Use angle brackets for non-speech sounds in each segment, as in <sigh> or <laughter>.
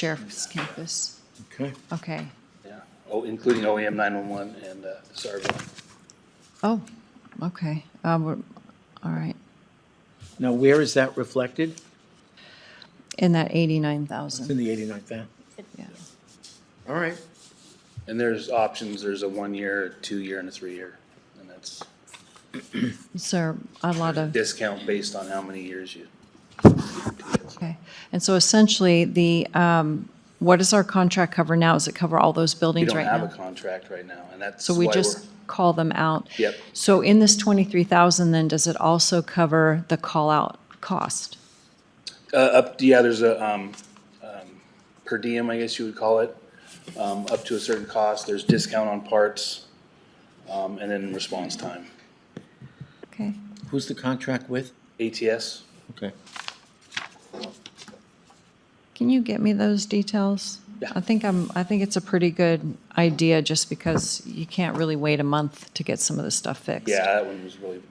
sheriff's campus. Okay. Okay. Yeah, oh, including OEM nine-one-one and, uh, Sarva. Oh, okay. Uh, we're, all right. Now, where is that reflected? In that It's in 89,000. the 89th, then. Yeah. All right. And there's options, there's a one-year, a two-year, and a three-year, and that's So a lot of, discount based on how many years you. okay. And so essentially, the, um, what does our contract cover now? Does it cover all those We buildings don't right have a now? contract right now, and that's So why we we're, just call them out? Yep. So in this 23,000, then, does it also cover the call-out cost? uh, up, yeah, there's a, um, um, per diem, I guess you would call it, um, up to a certain cost, there's discount on parts, um, and then response time. Okay. Who's the contract with? ATS, Okay. Can you get me those details? Yeah. I think I'm, I think it's a pretty good idea, just because you can't really wait a month to get some of this stuff fixed. yeah, that one was really,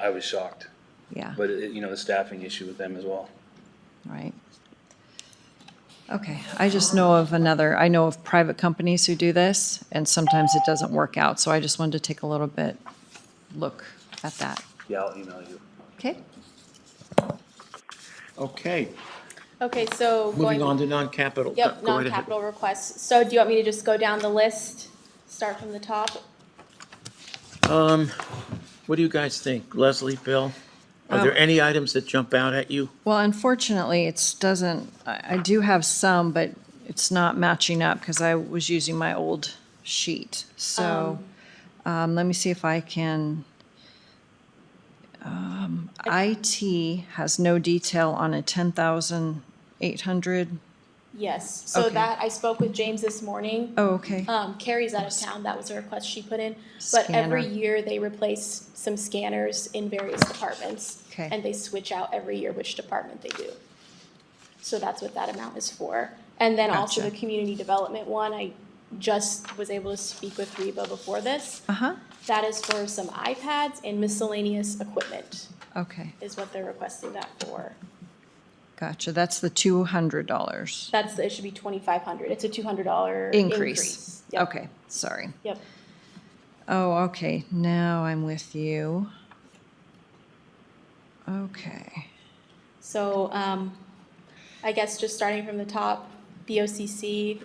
I was shocked, Yeah, but, it- you know, the staffing issue with them as well. right. Okay, I just know of another, I know of private companies who do this, and sometimes it doesn't work out, so I just wanted to take a little bit, look at that. Yeah, I'll email you. Okay? Okay, Okay, so. moving going- on to non-capital. Yep, Go right ahead. non-capital requests. So do you want me to just go down the list, start from the top? What do you guys think? Leslie, Bill? Um, Are there any items that jump out at you? Well, unfortunately, it's, doesn't, I, I do have some, but it's not matching up because I was using my old sheet. So, um, let me see if I can. Um, IT has no detail on a ten thousand eight hundred. Yes, so Okay. that, I spoke with James this morning. Oh, okay. Um, Carrie's out of town, that was a request she put in, but every Scanner. year they replace some scanners in various departments. Okay. And they switch out every year which department they do. So that's what that amount is for. And then also the Gotcha. community development one, I just was able to speak with Reba before this. Uh-huh, That is for some iPads and miscellaneous equipment okay, is what they're requesting that for. gotcha. That's the two hundred dollars That's, the- it should be twenty-five hundred. It's a two hundred dollar increase. increase. Yep, Okay, sorry. Yep. Oh, okay, now I'm with you. Okay. So, um, I guess just starting from the top, BOCC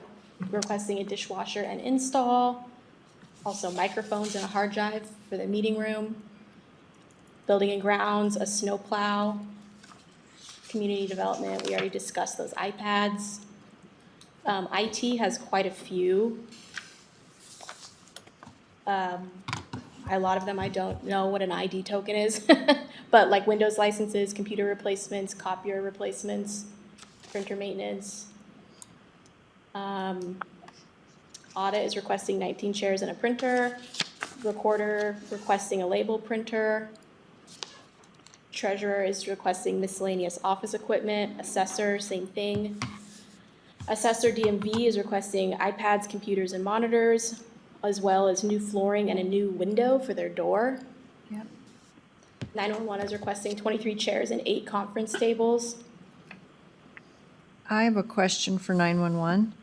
requesting a dishwasher and install, also microphones and a hard drive for the meeting room, building and grounds, a snowplow, community development, we already discussed those iPads. Um, IT has quite a few. Um, a lot of them I don't know what an ID token is, <laughs> but like Windows licenses, computer replacements, copier replacements, printer maintenance. Um, Audit is requesting nineteen chairs and a printer, recorder requesting a label printer. Treasurer is requesting miscellaneous office equipment, assessor, same thing. Assessor DMV is requesting iPads, computers, and monitors, as well as new flooring and a new window for their door. Yep. 911 is requesting 23 chairs and eight conference tables. I have a question for 911.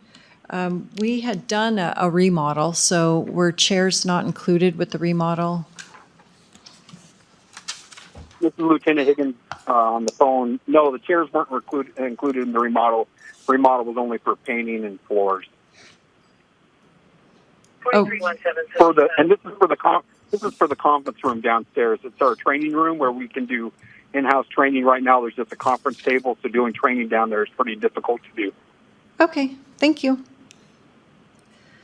Um, We had done a a remodel, so were chairs not included with the remodel? This is Lieutenant Higgins uh, on the phone. No, the chairs weren't recluded, included in the remodel. Remodel was only for painting and floors. Oh. 43177. For the and this is for the con this is for the conference room downstairs. It's our training room where we can do in-house training. Right now, there's just a conference table, so doing training down there is pretty difficult to do. Okay, thank you.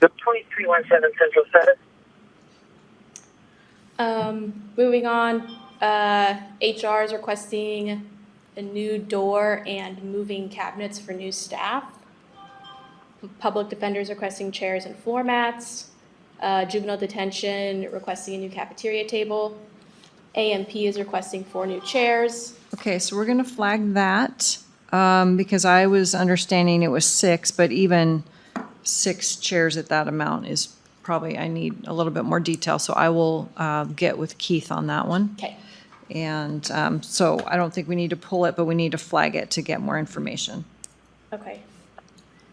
43177 Central 7. Um, Moving on, uh, HR is requesting a new door and moving cabinets for new staff. Public defenders requesting chairs and floor mats. Uh, Juvenile detention requesting a new cafeteria table. AMP is requesting four new chairs. Okay, so we're going to flag that um, because I was understanding it was six, but even six chairs at that amount is probably, I need a little bit more detail, so I will uh, get with Keith on that one. Okay. And um, so I don't think we need to pull it, but we need to flag it to get more information. Okay,